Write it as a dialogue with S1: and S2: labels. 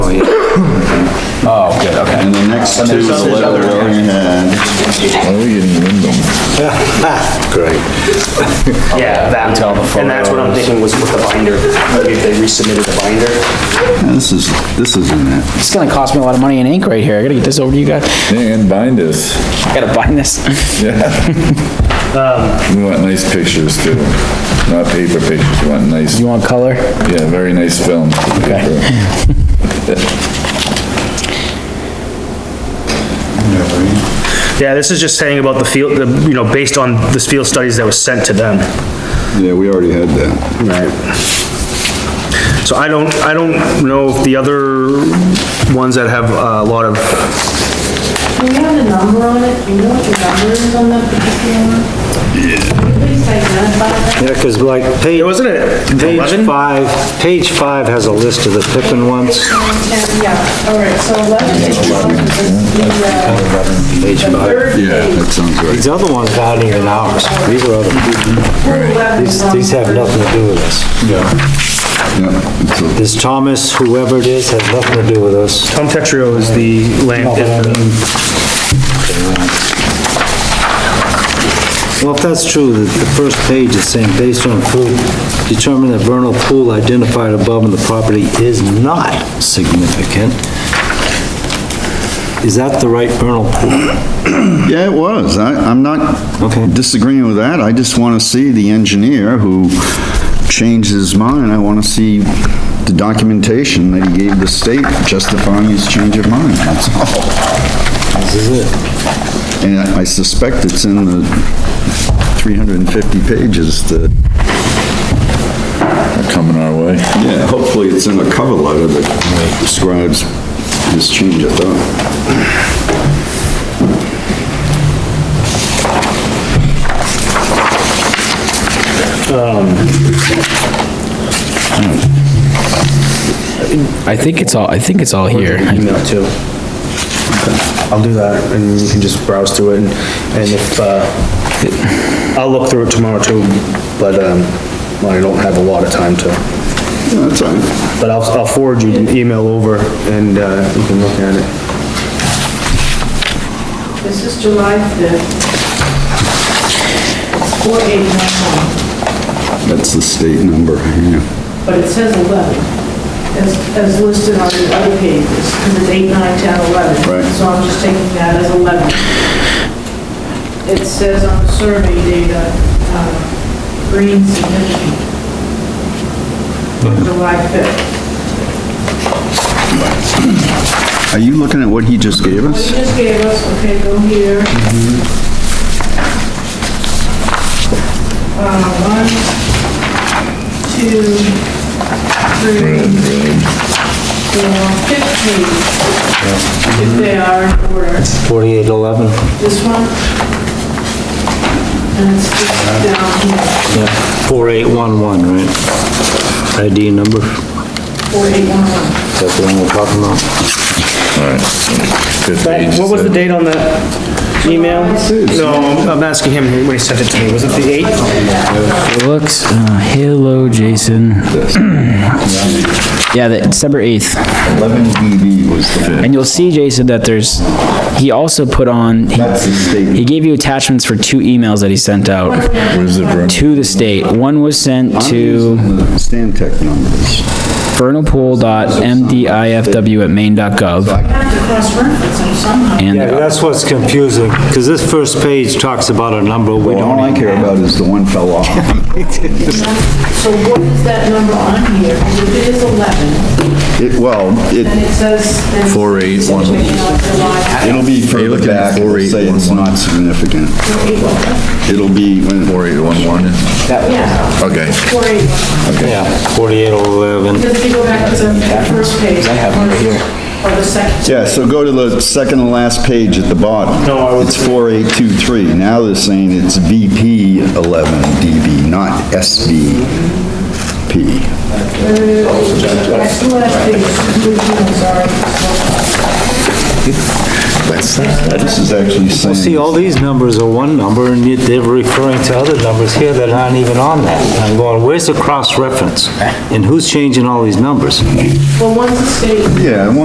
S1: next to the leather and
S2: Yeah, that,
S3: Until the
S2: and that's what I'm
S3: photos.
S2: thinking was with the binder, maybe if they resubmitted the binder.
S1: this is, this isn't it.
S3: It's gonna cost me a lot of money in ink right here. I gotta get this over to you guys.
S4: And bind us.
S3: I gotta bind this.
S4: We want nice pictures too, not paper pictures, we want nice,
S3: You want color?
S4: yeah, very nice film.
S2: Yeah, this is just saying about the field, the, you know, based on the field studies that was sent to them.
S1: Yeah, we already had that.
S2: Right. So I don't, I don't know if the other ones that have a lot of,
S5: Do we have a number on it? Do you know what the number is on that particular one? Can you please identify that?
S6: Yeah, because like, page,
S2: wasn't it
S6: page
S2: 11?
S6: five, page five has a list of the Pippin ones.
S5: Ten, Yeah, all right, so 11 is the one that's the, uh, the third page.
S1: Yeah, that sounds right.
S6: These other ones down here in ours, these are other, these, these have nothing to do with us.
S1: Yeah, it's a-
S6: This Thomas, whoever it is, has nothing to do with us.
S2: Tom Tetrio is the land.
S6: Well, if that's true, the, the first page is saying, based on proof, determine that vernal pool identified above in the property is not significant. Is that the right vernal pool?
S1: Yeah, it was. I, I'm not
S6: Okay.
S1: disagreeing with that. I just want to see the engineer who changed his mind. I want to see the documentation that he gave the state justifying his change of mind, that's all.
S6: This is it.
S1: And I suspect it's in the 350 pages that
S4: Coming our way.
S1: Yeah, hopefully it's in a cover letter that describes this change of thought.
S3: I think it's all, I think it's all here.
S2: email too. I'll do that, and you can just browse through it, and and if, uh, I'll look through it tomorrow too, but, um, I don't have a lot of time to.
S1: Yeah, That's all right.
S2: But I'll, I'll forward you an email over, and, uh, you can look at it.
S5: This is July 5th. 4891,
S1: That's the state number, yeah.
S5: but it says 11, as, as listed on the other pages, because it's 8, 9, 10, 11.
S1: Right.
S5: So I'm just taking that as 11. It says on the survey data, uh, green significant, July 5th.
S1: Are you looking at what he just gave
S5: What you
S1: us?
S5: just gave us, okay, go here. Uh, one, two, three, four, fifth page. If they are in order,
S6: Forty-eight eleven,
S5: this one. And it's just down here,
S6: yeah, four eight one one, right? ID number,
S5: four, eight, one, one.
S6: that's the one we're talking about.
S4: Fifth page,
S2: What was the date on that email? No, I'm- I'm asking him when he sent it to me, was it the eighth?
S3: It looks, uh, hello, Jason. Yeah, the December 8th.
S1: 11 DB was the...
S3: And you'll see, Jason, that there's, he also put on, he-
S1: That's the
S3: he
S1: state.
S3: gave you attachments for two emails that he sent out
S4: Where's the room?
S3: to the state. One was sent to
S1: Stantec numbers.
S3: vernalpool.mdifw@maine.gov,
S5: Have to cross-reference them somehow.
S3: and
S6: Yeah,
S3: the
S6: that's what's confusing, because this first page talks about a number we
S1: All I
S6: don't,
S1: care about is the one fell off.
S5: So what is that number on here? Because If it is 11,
S1: It, well,
S5: and
S1: it,
S5: it says. then
S4: Four, eight, one.
S5: Situation of July.
S1: it'll be further
S4: looking at
S1: back, it'll say it's
S4: 4811.
S1: not significant. It'll be when...
S4: 4811,
S5: Yeah,
S4: okay.
S5: four, eight, one.
S6: yeah, forty-eight eleven.
S5: Because if you go back to the first page. I have it here. Or the second.
S1: Yeah, so go to the second to last page at the bottom. No, I It's 4823. Now they're saying it's VP 11 DB, not SVP.
S5: I still have the conclusion, sorry.
S1: That's, this is actually saying...
S6: See, all these numbers are one number, and yet they're referring to other numbers here that aren't even on that. I'm going, where's the cross-reference? And who's changing all these numbers?
S5: Well, one's a state
S1: Yeah,